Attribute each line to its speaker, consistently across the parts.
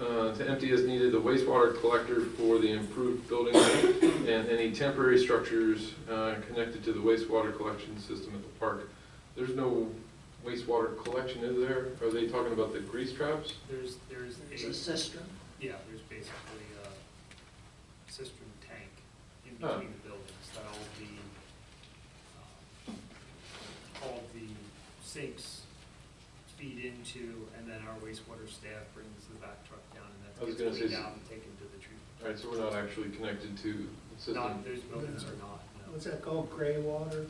Speaker 1: uh, to empty as needed the wastewater collector for the improved building and any temporary structures uh, connected to the wastewater collection system at the park. There's no wastewater collection, is there? Are they talking about the grease traps?
Speaker 2: There's, there's a,
Speaker 3: There's a cistern.
Speaker 2: yeah, there's basically a cistern tank in
Speaker 1: Oh.
Speaker 2: between the buildings that all the, um, all the sinks feed into, and then our wastewater staff brings the back truck down, and
Speaker 1: I
Speaker 2: that
Speaker 1: was
Speaker 2: gets
Speaker 1: gonna say
Speaker 2: cleaned
Speaker 1: s-
Speaker 2: out and taken to the treatment.
Speaker 1: All right, so we're not actually connected to the system.
Speaker 2: Not, those buildings are not, no.
Speaker 4: What's that called, gray water?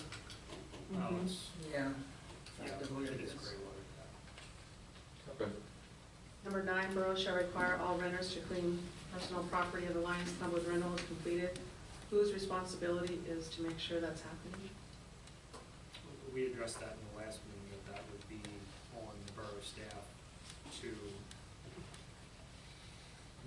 Speaker 2: No, it's,
Speaker 3: Yeah.
Speaker 2: yeah,
Speaker 3: Kind of what
Speaker 2: it
Speaker 3: it
Speaker 2: is
Speaker 3: is.
Speaker 2: gray water.
Speaker 1: Okay.
Speaker 5: Number nine, borough shall require all renters to clean personal property of the Lions Club rental is completed. Whose responsibility is to make sure that's happening?
Speaker 2: We addressed that in the last meeting, that that would be on the borough staff to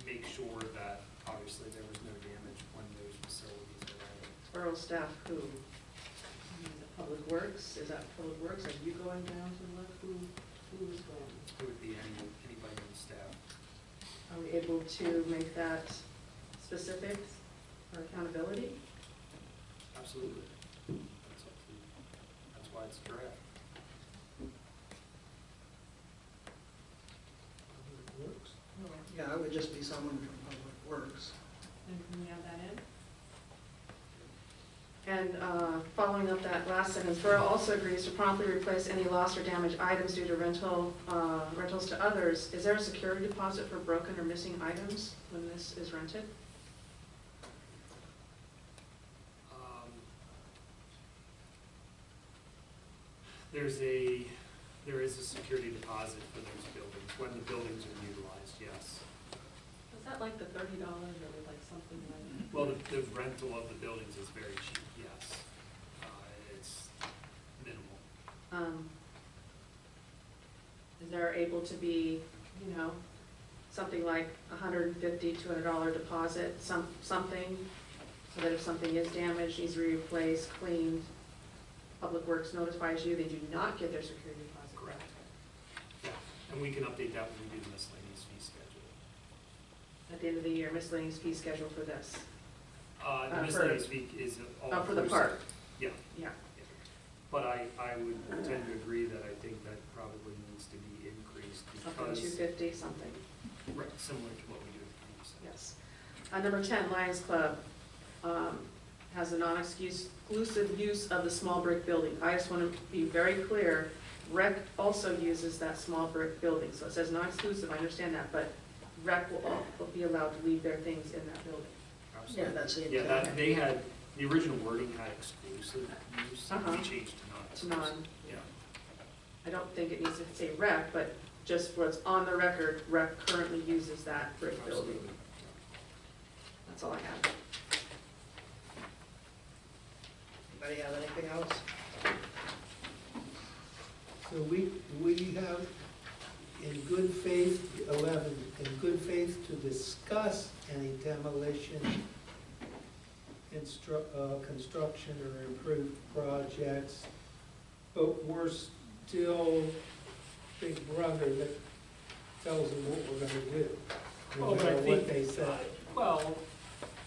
Speaker 2: make sure that obviously there was no damage when those facilities were added.
Speaker 5: Borough staff who? Is it Public Works, is that Public Works, are you going down to look who, who is going?
Speaker 2: It would be any, anybody on staff.
Speaker 5: Are we able to make that specific for accountability?
Speaker 2: Absolutely. That's up to, that's why it's a draft.
Speaker 4: Public Works?
Speaker 3: Yeah, it would just be someone from Public Works.
Speaker 6: And can we add that in?
Speaker 5: And uh, following up that last sentence, Borough also agrees to promptly replace any lost or damaged items due to rental, uh, rentals to others. Is there a security deposit for broken or missing items when this is rented?
Speaker 2: Um, There's a, there is a security deposit for those buildings, when the buildings are utilized, yes.
Speaker 5: Is that like the thirty dollars or like something like?
Speaker 2: Well, the- the rental of the buildings is very cheap, yes. Uh, It's minimal.
Speaker 5: Um, Is there able to be, you know, something like a hundred and fifty, two hundred dollar deposit, some, something? So that if something is damaged, needs to be replaced, cleaned, Public Works notifies you, they do not get their security deposit. back.
Speaker 2: Correct. Yeah, and we can update that when we do the miscellaneous fee schedule.
Speaker 5: At the end of the year, miscellaneous fee schedule for this,
Speaker 2: Uh,
Speaker 5: Uh,
Speaker 2: The
Speaker 5: for-
Speaker 2: miscellaneous fee is all.
Speaker 5: uh, for the
Speaker 2: inclusive.
Speaker 5: park,
Speaker 2: Yeah,
Speaker 5: yeah.
Speaker 2: but I, I would tend to agree that I think that probably needs to be increased
Speaker 5: Something two
Speaker 2: because,
Speaker 5: fifty, something,
Speaker 2: right, similar to what we do with the museum.
Speaker 5: yes. Uh, number ten, Lions Club, um, has a non-excuse, exclusive use of the small brick building. I just wanna be very clear, rec also uses that small brick building, so it says non-exclusive, I understand that, but rec will, al- will be allowed to leave their things in that building.
Speaker 3: Yeah,
Speaker 2: Absolutely.
Speaker 3: that's the
Speaker 2: Yeah,
Speaker 3: intent.
Speaker 2: that, they had, the original wording had exclusive use, and we
Speaker 5: Uh-huh.
Speaker 2: changed to not
Speaker 5: It's
Speaker 2: exclusive.
Speaker 5: non,
Speaker 2: Yeah,
Speaker 5: I don't think it needs to say rec, but just what's on the record, rec currently uses that brick
Speaker 2: absolutely.
Speaker 5: building. That's all I have.
Speaker 3: Anybody have anything else?
Speaker 4: So we, we have, in good faith, eleven, in good faith to discuss any demolition, instru, uh, construction or improved projects, but we're still big brother that tells them what we're gonna do. No
Speaker 2: Well, but I
Speaker 4: matter
Speaker 2: think-
Speaker 4: what they say.
Speaker 2: Well,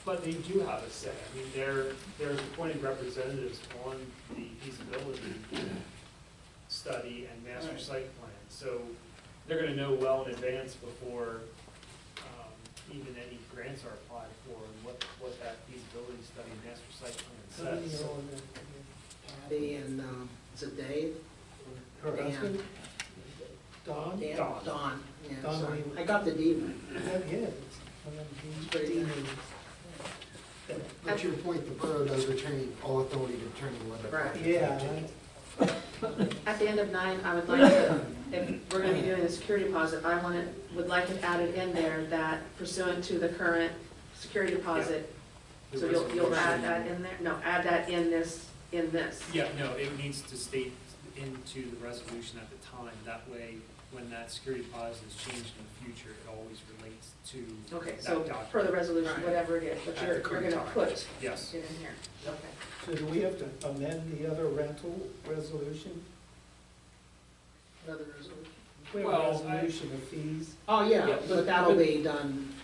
Speaker 2: but they do have a say. I mean, they're, they're appointed representatives on the feasibility study and master
Speaker 3: Right.
Speaker 2: site plan. So they're gonna know well in advance before, um, even any grants are applied for and what, what that feasibility study and master site
Speaker 4: How do
Speaker 2: plan
Speaker 4: you
Speaker 2: says.
Speaker 4: know on that?
Speaker 3: Patty and, um, is it Dave?
Speaker 4: Her
Speaker 3: Dan.
Speaker 4: husband? Don?
Speaker 3: Dan?
Speaker 2: Don.
Speaker 3: Don, yeah,
Speaker 4: Don
Speaker 3: sorry.
Speaker 4: Lehman.
Speaker 3: I got the D one.
Speaker 4: Yeah, yeah, it's one of
Speaker 3: It's pretty
Speaker 4: these
Speaker 3: nice.
Speaker 4: demons.
Speaker 7: But to your point, the borough does retain all authority to determine whether.
Speaker 5: Right.
Speaker 4: Yeah,
Speaker 5: At the end of nine, I would like to, if we're gonna be doing the security deposit, I want it, would like it added in there that pursuant to the current security deposit, so
Speaker 2: There
Speaker 5: you'll,
Speaker 2: was a
Speaker 5: you'll add
Speaker 2: motion.
Speaker 5: that in there, no, add that in this, in this.
Speaker 2: Yeah, no, it needs to state into the resolution at the time, that way, when that security deposit is changed in the future, it always relates to,
Speaker 5: Okay, so
Speaker 2: That document.
Speaker 5: per the resolution,
Speaker 3: Right.
Speaker 5: whatever it is, but
Speaker 2: At
Speaker 5: you're,
Speaker 2: the
Speaker 5: you're
Speaker 2: current
Speaker 5: gonna
Speaker 2: time.
Speaker 5: put
Speaker 2: yes.
Speaker 5: it in here. Okay.
Speaker 4: so do we have to amend the other rental resolution?
Speaker 3: Another resolution.
Speaker 8: We have a
Speaker 4: Well, I-
Speaker 8: resolution of fees.
Speaker 3: Oh, yeah,
Speaker 4: Yeah,
Speaker 3: but
Speaker 4: but-
Speaker 3: Oh, that'll
Speaker 4: but-
Speaker 3: be done